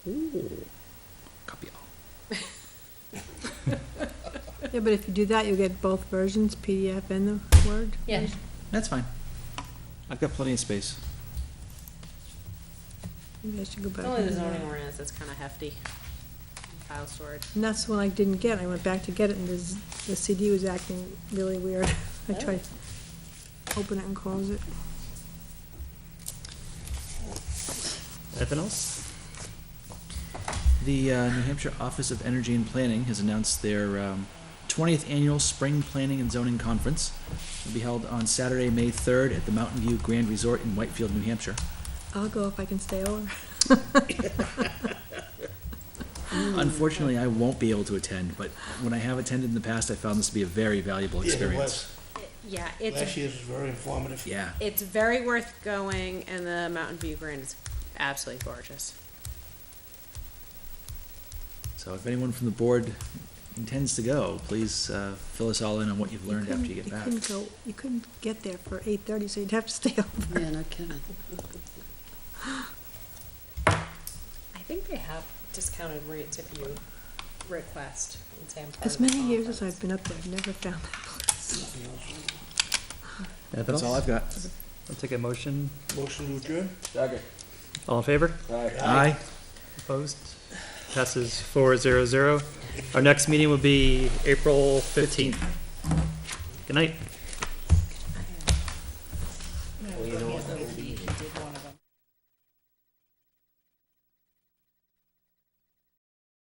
Copy all. Yeah, but if you do that, you'll get both versions, PDF and the Word. Yeah. version. That's fine. I've got plenty of space. You guys should go back. It's only the and do that. zoning ordinance that's kind of hefty. File storage. And that's the one I didn't get. I went back to get it and the, z- the CD was acting really weird. I Oh. tried to open it and close it. Anything else? The uh, New Hampshire Office of Energy and Planning has announced their um, 20th annual Spring Planning and Zoning Conference. It'll be held on Saturday, May 3rd at the Mountain View Grand Resort in Whitefield, New Hampshire. I'll go if I can stay over. Unfortunately, I won't be able to attend, but when I have attended in the past, I found this to be a very valuable experience. Yeah, Last it's, last year's was very informative. Yeah, it's very worth going and the Mountain View Grand is absolutely gorgeous. so if anyone from the board intends to go, please uh, fill us all in on what you've learned after you couldn't- get back. couldn't go, you couldn't get there for eight thirty, so you'd have to stay over. Yeah, no kidding. I think they have discounted rates if you request and say I'm part As many years as I've been up there, I've never found that place. Anything That's all I've else? got. I'll take a motion. Motion to adjourn? All in favor? Aye. Opposed? Passes four zero zero. Our next meeting will be April fifteenth. Good night.